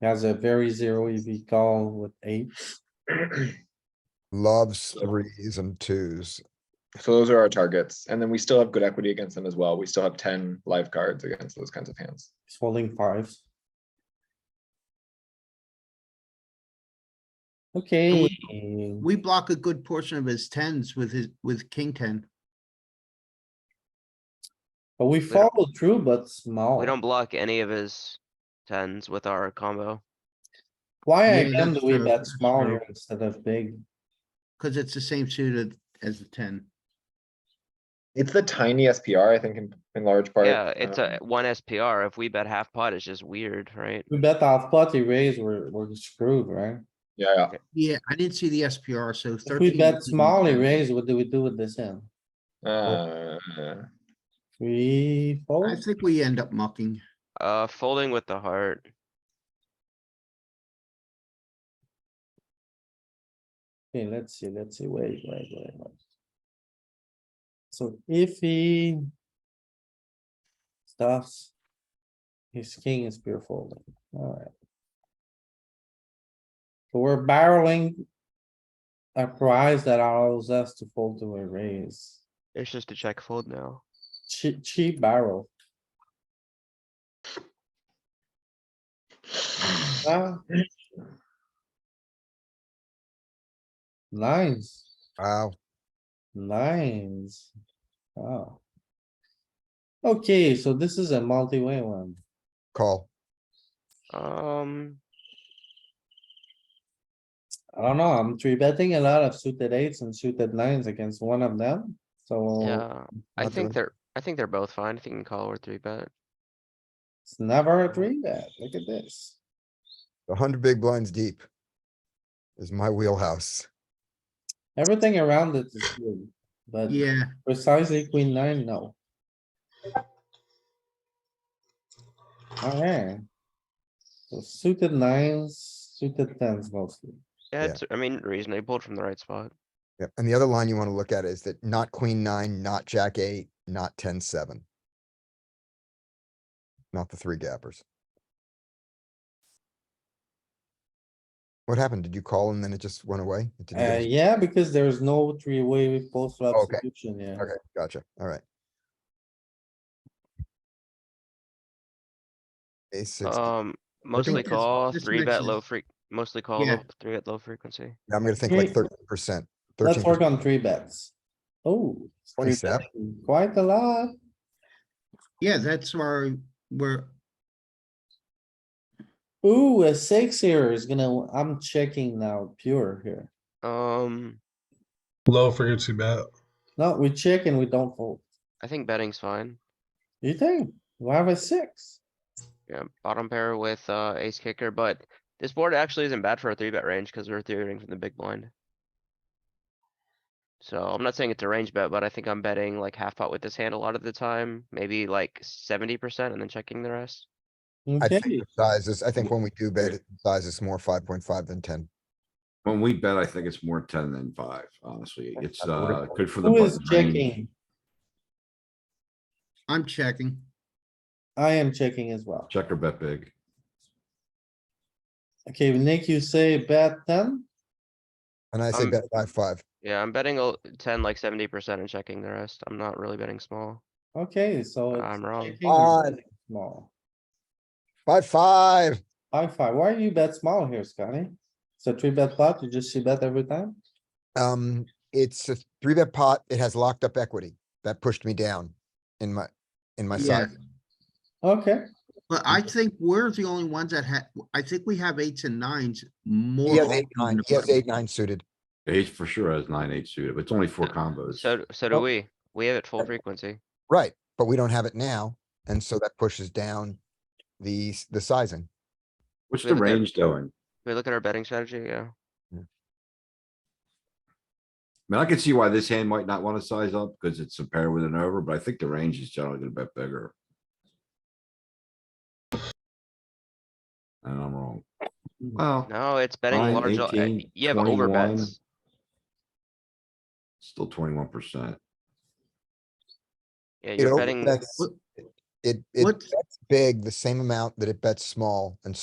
He has a very zero EV call with eights. loves threes and twos. So those are our targets. And then we still have good equity against them as well. We still have ten live cards against those kinds of hands. He's folding fives. Okay. We block a good portion of his tens with his, with king ten. But we don't- follow through, but small. We don't block any of his tens with our combo. Why Yeah, again do that's we true, bet that's small true. here instead of big? Cause it's the same suited as the ten. It's the tiny SPR, I think, in, in large part. Yeah, it's a um, one SPR. If we bet half pot, it's just weird, right? We bet off pot, he raised, we're, we're screwed, right? Yeah, yeah. Yeah, I didn't see the SPR, so If thirteen. we bet is- small, he raised, what do we do with this end? Uh, We I fold? think we end up mucking. Uh, folding with the heart. Okay, let's see, let's see, wait, wait, wait, wait. So if he. Stuffs. His king is pure folding, alright. So we're barreling. A prize that allows us to fold to a raise, It's just a check fold now. cheap, cheap barrel, huh? Nines, Wow, nines, wow. Okay, so this is a multi-way one. call. Um, I don't know, I'm three betting a lot of suited eights and suited nines against one of them, so yeah, I not think doing- they're, I think they're both fine. I think you can call or three bet. it's never a three bet, look at this. A hundred big blinds deep. Is my wheelhouse. Everything around it is good, but Yeah, precisely queen nine, no. Alright. So suited nines, suited tens mostly. Yeah, Yeah. it's, I mean, reason they pulled from the right spot. Yep. And the other line you want to look at is that not queen nine, not jack eight, not ten, seven. Not the three gappers. What happened? Did you call and then it just went away? It didn't give Uh, us- yeah, because there's no three-way post flop Okay. solution, yeah. Okay, gotcha. All right. Ace six. Yeah, Um, mostly this- call, this three bet mixes- low freq, mostly call, Yeah. low- three bet low frequency. I'm gonna think like Hey, thirteen percent. Let's Thirteen, work on three bets. Oh. it's three 27. betting Quite a lot. yeah, that's where we're, Ooh, a six here is gonna, I'm checking now, pure here. Um, Low frequency bet. No, we check and we don't fold. I think betting's fine. You think? We have a six. Yeah, bottom pair with, uh, ace kicker, but this board actually isn't bad for a three bet range because we're three betting from the big blind. So I'm not saying it's a range bet, but I think I'm betting like half pot with this hand a lot of the time, maybe like seventy percent and then checking the rest. I Okay, think the sizes, I think when we do bet, it, size is more five point five than ten. When we bet, I think it's more ten than five, honestly. It's, uh, good for the. who is button range. checking? I'm checking. I am checking as well. Check or bet big. Okay, Nick, you say bet ten? And I say Um, bet five, five. Yeah, I'm betting a ten, like seventy percent and checking the rest. I'm not really betting small. Okay, so. it's I'm wrong. checking or betting Small. Five, five. High five. Why you bet small here, Scotty? It's a three bet pot. You just see bet every time? Um, it's a three bet pot. It has locked up equity. That pushed me down in my, in my Yeah, size. Okay, but I think we're the only ones that had, I think we have eights and nines more. He has often eight, nine, than he has the- eight, nine suited. Ace for sure has nine, eight suited, but it's only four combos. Uh, So, d- so do Well- we. We have it full frequency. Right, but we don't have it now, and so that pushes down the, s- the sizing. What's we the have a bet. range doing? We look at our betting strategy, yeah. I mean, I can see why this hand might not wanna size up, cause it's a pair with an over, but I think the range is generally gonna bet bigger. And I'm wrong. Hmm. Well, No, it's betting Nine, large. o- uh, 18, You have over 21. bets. still twenty-one percent. Yeah, It you're betting. overbets- It, it What- bets big, the same amount that it bets small, and